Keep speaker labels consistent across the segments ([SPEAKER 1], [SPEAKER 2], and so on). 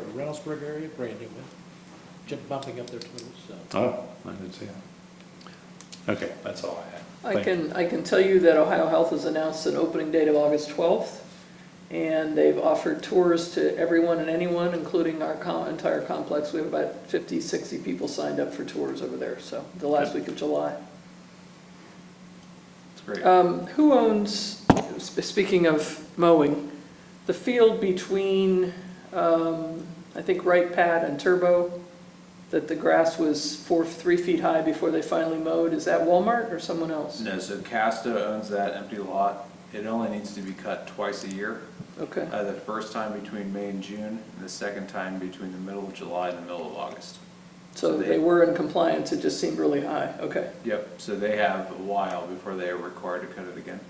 [SPEAKER 1] Donaldsburg area, brand new one, just bumping up their totals, so.
[SPEAKER 2] Oh, I didn't see that. Okay, that's all I had.
[SPEAKER 3] I
[SPEAKER 2] Thank you.
[SPEAKER 3] can, I can tell you that Ohio Health has announced an opening date of August 12th, and they've offered tours to everyone and anyone, including our co- entire complex. We have about 50, 60 people signed up for tours over there, so, the last week of July.
[SPEAKER 4] It's great.
[SPEAKER 3] Um, Who owns, sp- speaking of mowing, the field between, um, I think, Right Pad and Turbo, that the grass was four, three feet high before they finally mowed, is that Walmart or someone else?
[SPEAKER 4] No, so Casta owns that empty lot. It only needs to be cut twice a year.
[SPEAKER 3] Okay.
[SPEAKER 4] Uh, the first time between May and June, and the second time between the middle of July and the middle of August.
[SPEAKER 3] So
[SPEAKER 4] So they-
[SPEAKER 3] they were in compliance, it just seemed really high, okay.
[SPEAKER 4] Yep, so they have a while before they are required to cut it again.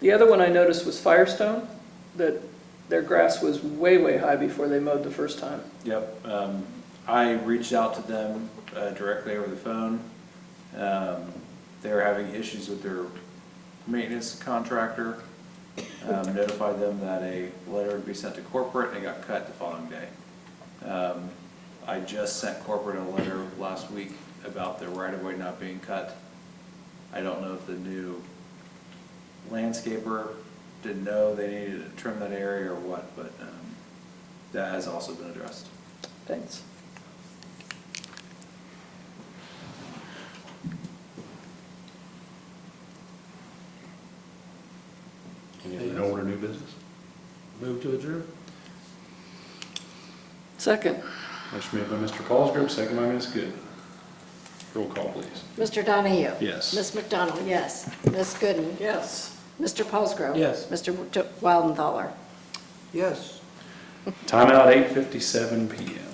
[SPEAKER 3] The other one I noticed was Firestone, that their grass was way, way high before they mowed the first time.
[SPEAKER 4] Yep, um, I reached out to them, uh, directly over the phone. Um, they were having issues with their maintenance contractor. Um, notified them that a letter would be sent to corporate and it got cut the following day. Um, I just sent corporate a letter last week about the right of way not being cut. I don't know if the new landscaper didn't know they needed to trim that area or what, but, um, that has also been addressed.
[SPEAKER 3] Thanks.
[SPEAKER 2] Any other old or new business?
[SPEAKER 1] Move to adjourn?
[SPEAKER 3] Second,
[SPEAKER 2] Motion made by Mr. Colesgrove, second by Ms. Good. Roll call, please.
[SPEAKER 5] Mr. Donahue?
[SPEAKER 2] Yes.
[SPEAKER 5] Ms. McDonald, yes. Ms. Gooden?
[SPEAKER 3] yes.
[SPEAKER 5] Mr. Paulsgrove?
[SPEAKER 1] Yes.
[SPEAKER 5] Mr. Wildenthaler?
[SPEAKER 1] Yes.
[SPEAKER 2] Timeout, eight fifty-seven PM.